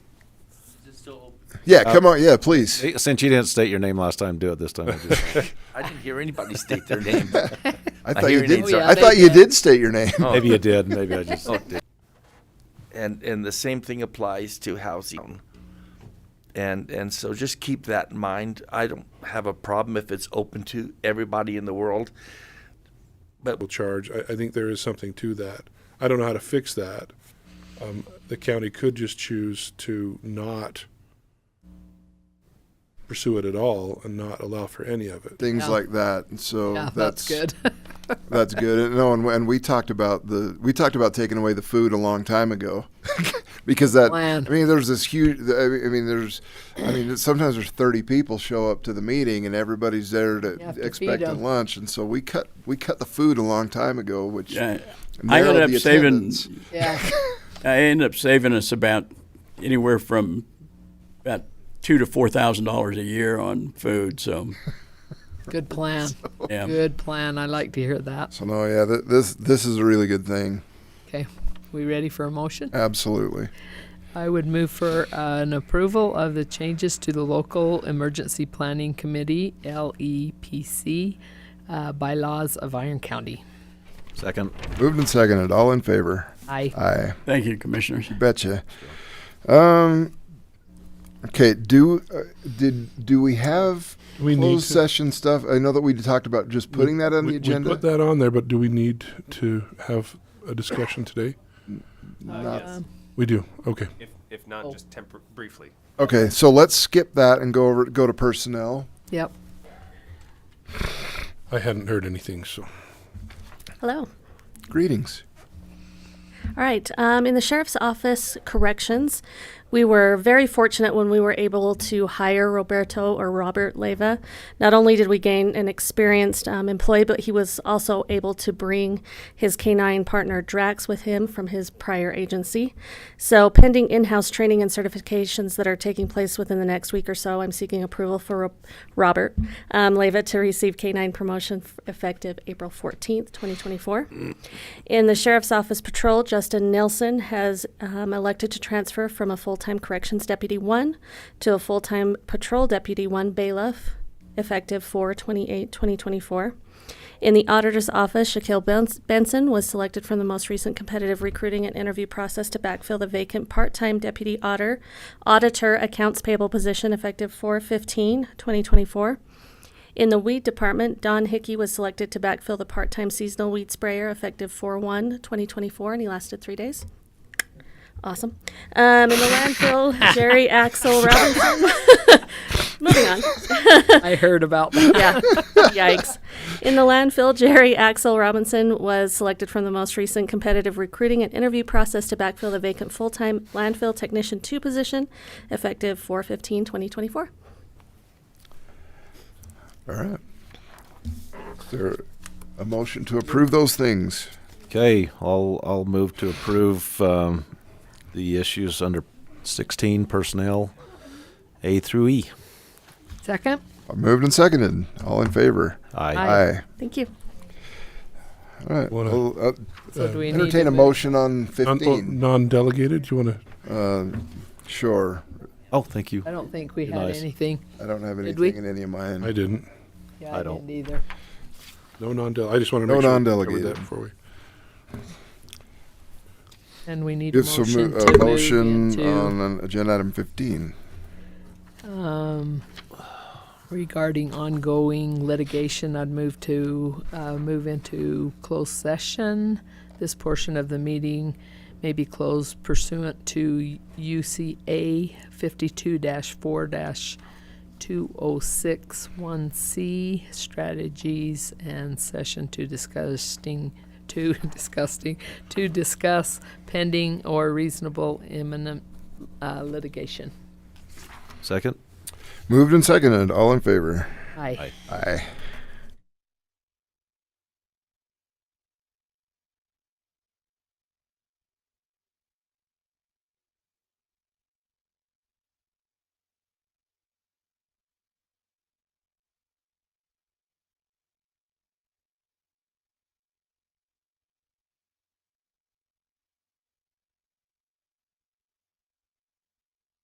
still open. Yeah, Uh, come on. Yeah, please. Since you didn't state your name last time, do it this time. I just- I didn't hear anybody state their name. I I thought hear you your did. name's Oh, I up. thought they you did. did state your name. Oh. Maybe you did. Maybe I just. and and the same thing applies to housing. And and so just keep that in mind. I don't have a problem if it's open to everybody in the world. will charge. I, I think there is something to that. I don't know how to fix that. Um, the county could just choose to not pursue it at all and not allow for any of it. Things Yeah. like that. And So Yeah, that's good. That's good. And, no, and, and we talked about the we talked about taking away the food a long time ago, because that Man. I mean, there's this huge. I mean- I mean, there's, I mean, sometimes there's 30 people show up to the meeting and everybody's there to, You have to feed expect a 'em. lunch, and so we cut we cut the food a long time ago, which Yeah, I narrowed ended up the saving. attendance. yeah. I ended up saving us about anywhere from about two to four thousand dollars a year on food. So Good plan. yeah, Good plan. I like to hear that. So no, yeah, th- this this is a really good thing. Okay. We ready for a Uh, motion? Absolutely. I would move for uh, an approval of the changes to the local emergency planning committee (LEPC) uh, bylaws of Iron County. Second. Moved and seconded. All in favor? Aye. Aye. thank you, commissioners. Betcha. Um, okay. Do uh, did do we have We need closed to- session stuff? I know that we talked about just putting that on We- the we agenda. put that on there, but do we need to have a discussion today? Not- Um, We do. Okay. If, if not, Oh. just tempor- briefly. Okay, so let's skip that and go over go to personnel. Yep. I hadn't heard anything, so Hello. Greetings. All right. Um, in the sheriff's office corrections, we were very fortunate when we were able to hire Roberto or Robert Leva. Not only did we gain an experienced um, employee, but he was also able to bring his canine partner Drax with him from his prior agency. So, pending in house training and certifications that are taking place within the next week or so, I'm seeking approval for Ro- Robert um, Leva to receive canine promotion f- effective April 14th, 2024. In the Sheriff's Office Patrol, Justin Nelson has um, elected to transfer from a full time Corrections Deputy 1 to a full time Patrol Deputy 1 bailiff, effective 4 28 2024. In the Auditor's Office, Shaquille Bens- Benson was selected from the most recent competitive recruiting and interview process to backfill the vacant part time Deputy Auditor, Auditor Accounts Payable position, effective 4 15 2024. In the weed department, Don Hickey was selected to backfill the part-time seasonal weed sprayer effective 4-1-2024, and he lasted three days. Awesome. Um, in the landfill, Jerry Axel Robinson. Moving on. I heard about that. Yeah. Yikes. In the landfill, Jerry Axel Robinson was selected from the most recent competitive recruiting and interview process to backfill the vacant full-time landfill technician two position, effective 4-15-2024. All right. Is there a motion to approve those things? Okay. I'll I'll move to approve um, the issues under 16 personnel, A through E. Second. Uh, Moved and seconded. All in favor? Aye. Aye. Aye. Thank you. All right. Wanna- Well, uh, So do we need entertain to a move? motion on non- oh, fifteen. non-delegated. You want to? Uh, sure. Oh, thank you. I don't think we had Nice. anything. I don't have Did we? anything in any of mine. I didn't. Yeah, I I, don't. didn't either. No non-del. I just want to No make sure we covered non-delegated. that before we. And we need a Give motion some mo- to a motion move into, on an agenda item fifteen. um, regarding ongoing litigation. I'd move to uh, move into closed session. This portion of the meeting may be closed pursuant to UCA 52-4-2061C strategies and session to discussing to discussing to discuss pending or reasonable imminent uh, litigation. Second. Moved and seconded. All in favor? Aye. Aye. Aye.